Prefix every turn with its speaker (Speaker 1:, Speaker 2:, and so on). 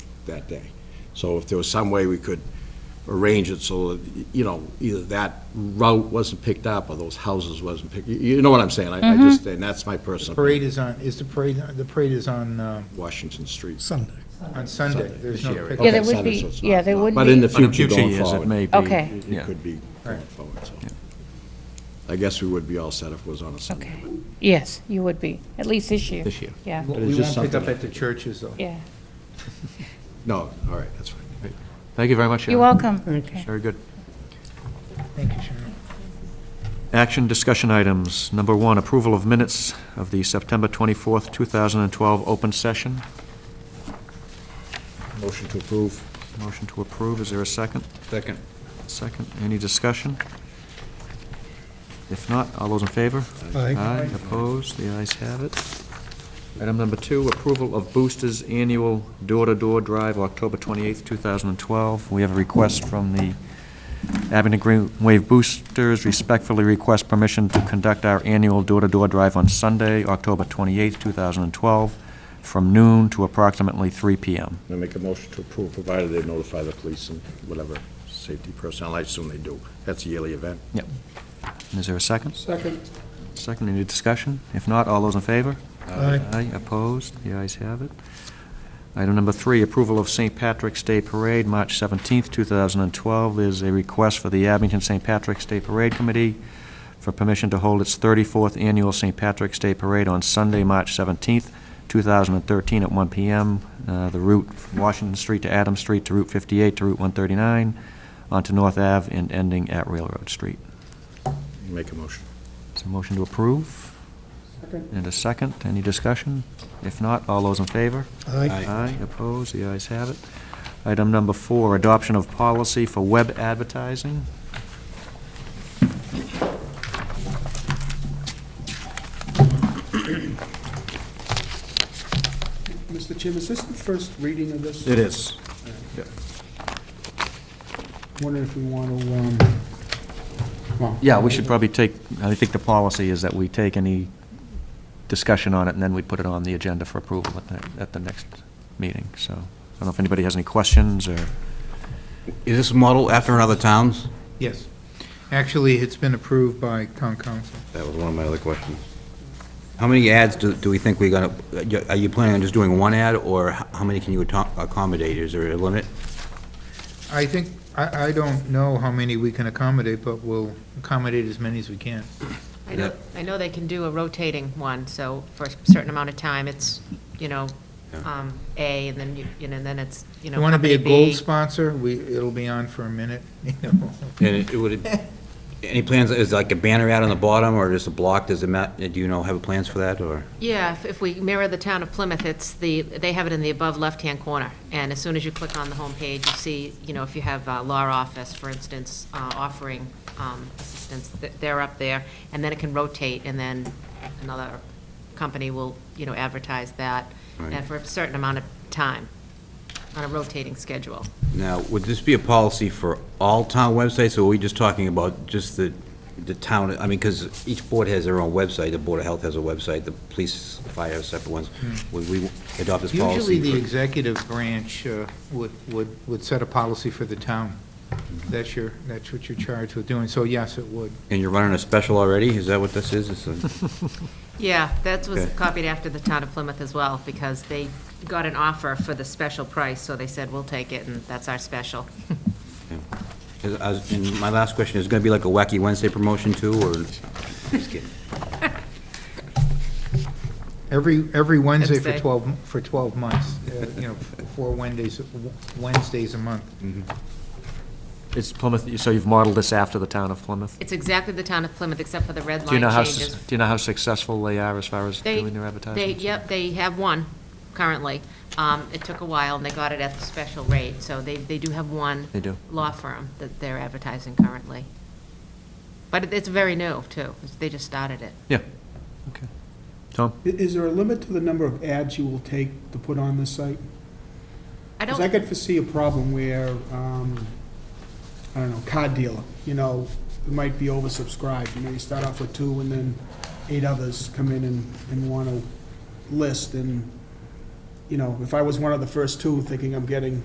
Speaker 1: that day. So if there was some way we could arrange it so that, you know, either that route wasn't picked up or those houses wasn't picked, you- you know what I'm saying? I I
Speaker 2: Mm-hmm.
Speaker 1: just, and that's my personal.
Speaker 3: Parade is on, is the parade, the parade is on, um,
Speaker 1: Washington Street.
Speaker 4: Sunday.
Speaker 3: on Sunday.
Speaker 1: Sunday,
Speaker 3: There's
Speaker 5: this
Speaker 3: no
Speaker 5: year.
Speaker 3: pickup.
Speaker 1: Okay,
Speaker 2: Yeah, there would
Speaker 1: Saturday,
Speaker 2: be-
Speaker 1: so it's
Speaker 2: yeah,
Speaker 1: not-
Speaker 2: there
Speaker 1: not-
Speaker 2: would
Speaker 1: But in
Speaker 2: be-
Speaker 1: the
Speaker 5: In the
Speaker 1: future
Speaker 5: future
Speaker 1: going
Speaker 5: years, it
Speaker 1: forward,
Speaker 5: may be.
Speaker 2: Okay.
Speaker 1: it
Speaker 5: yeah.
Speaker 1: could be going
Speaker 3: Right.
Speaker 1: forward, so.
Speaker 5: Yeah.
Speaker 1: I guess we would be all set if it was on a Sunday.
Speaker 2: Okay. Yes, you would be, at least this year.
Speaker 5: This year.
Speaker 2: Yeah,
Speaker 1: But it's
Speaker 3: We
Speaker 1: just
Speaker 3: won't pick
Speaker 1: something-
Speaker 3: up at the churches, though.
Speaker 2: yeah.
Speaker 1: No, all right, that's fine.
Speaker 5: Thank you very much, Sharon.
Speaker 2: You're welcome. Okay.
Speaker 5: Very good.
Speaker 3: Thank you, Sharon.
Speaker 5: Action discussion items. Number one, approval of minutes of the September 24th, 2012 open session.
Speaker 1: Motion to approve.
Speaker 5: Motion to approve. Is there a second?
Speaker 1: Second.
Speaker 5: Second. Any discussion? If not, all those in favor?
Speaker 4: Aye.
Speaker 5: Aye, opposed, the ayes have it. Item number two, approval of Boosters Annual Door-to-Door Drive, October 28th, 2012. We have a request from the Abington Green Wave Boosters, respectfully request permission to conduct our annual door-to-door drive on Sunday, October 28th, 2012, from noon to approximately 3 PM.
Speaker 1: I make a motion to approve, provided they notify the police and whatever safety personnel, I assume they do. That's a yearly event.
Speaker 5: Yep. Is there a second?
Speaker 4: Second.
Speaker 5: Second, any discussion? If not, all those in favor?
Speaker 4: Aye.
Speaker 5: Aye, opposed, the ayes have it. Item number three, approval of St. Patrick's Day Parade, March 17th, 2012. There's a request for the Abington St. Patrick's Day Parade Committee for permission to hold its 34th Annual St. Patrick's Day Parade on Sunday, March 17th, 2013, at 1 PM. Uh, The route from Washington Street to Adams Street to Route 58 to Route 139, onto North Ave and ending at Railroad Street.
Speaker 1: Make a motion.
Speaker 5: Is there a motion to approve? And a second, any discussion? If not, all those in favor?
Speaker 4: Aye.
Speaker 5: Aye, opposed, the ayes have it. Item number four, adoption of policy for web advertising.
Speaker 6: Mr. Chairman, is this the first reading of this?
Speaker 1: is.
Speaker 6: Wondering if we want to, um, well...
Speaker 5: Yeah, we should probably take, I think the policy is that we take any discussion on it, and then we put it on the agenda for approval at the, at the next meeting, so. I don't know if anybody has any questions, or,
Speaker 7: Is this model after in other towns?
Speaker 3: Yes. Actually, it's been approved by town council.
Speaker 7: That was one of my other questions. How many ads do, do we think we got, are you planning on just doing one ad, or h- how many can you atto- accommodate? Is there a limit?
Speaker 3: I think, I, I don't know how many we can accommodate, but we'll accommodate as many as we can.
Speaker 8: I know,
Speaker 7: Yep.
Speaker 8: I know they can do a rotating one, so for a certain amount of time, it's, you know,
Speaker 7: Yeah.
Speaker 8: um, A, and then, you you know, then it's, you
Speaker 3: If
Speaker 8: know,
Speaker 3: you want to be
Speaker 8: company
Speaker 3: a gold
Speaker 8: B.
Speaker 3: sponsor, we, it'll be on for a minute, you know.
Speaker 7: And it would, any plans, is like a banner ad on the bottom, or just a block, does it ma, do you know, have plans for that, or?
Speaker 8: Yeah, if, if we mirror the town of Plymouth, it's the, they have it in the above left-hand corner. And as soon as you click on the homepage, you see, you know, if you have uh, law office, for instance, uh, offering um, assistance, th- they're up there, and then it can rotate, and then another company will, you know, advertise that,
Speaker 7: Right.
Speaker 8: and for a certain amount of time, on a rotating schedule.
Speaker 7: Now, would this be a policy for all town websites, or are we just talking about just the, the town, I mean, because each board has their own website, the Board of Health has a website, the police, fire have separate ones. Would we adopt this policy?
Speaker 3: Hmm. Usually, the
Speaker 7: for-
Speaker 3: executive branch uh, would, would, would set a policy for the town. That's your, that's what you're charged with doing, so yes, it would.
Speaker 7: And you're running a special already? Is that what this is? It's a-
Speaker 8: Yeah, that was
Speaker 7: Okay.
Speaker 8: copied after the town of Plymouth as well, because they got an offer for the special price, so they said, we'll take it, and that's our special.
Speaker 7: is- I was- And my last question, is it going to be like a Wacky Wednesday promotion too, or? Just kidding.
Speaker 3: Every, every Wednesday for
Speaker 8: Wednesday.
Speaker 3: 12, for 12 months, uh, you know, four Wednesdays, Wednesdays a month.
Speaker 5: it's Plymouth, so you've modeled this after the town of Plymouth?
Speaker 8: It's exactly the town of Plymouth, except for the red
Speaker 5: Do you
Speaker 8: line
Speaker 5: know how, sus-
Speaker 8: changes.
Speaker 5: do you know how successful they are as far as
Speaker 8: They,
Speaker 5: doing their advertising?
Speaker 8: they, yep, they have one currently. Um, It took a while, and they got it at the special rate, so they, they do have one
Speaker 5: They do.
Speaker 8: law firm that they're advertising currently. But it- it's very new, too. They just started it.
Speaker 5: Yeah, okay. Tom?
Speaker 6: I- Is there a limit to the number of ads you will take to put on this site?
Speaker 8: I
Speaker 6: Because
Speaker 8: don't.
Speaker 6: I could foresee a problem where, um, I don't know, car dealer, you know, it might be oversubscribed. You know, you start off with two, and then eight others come in and, and want to list, and you know, if I was one of the first two thinking I'm getting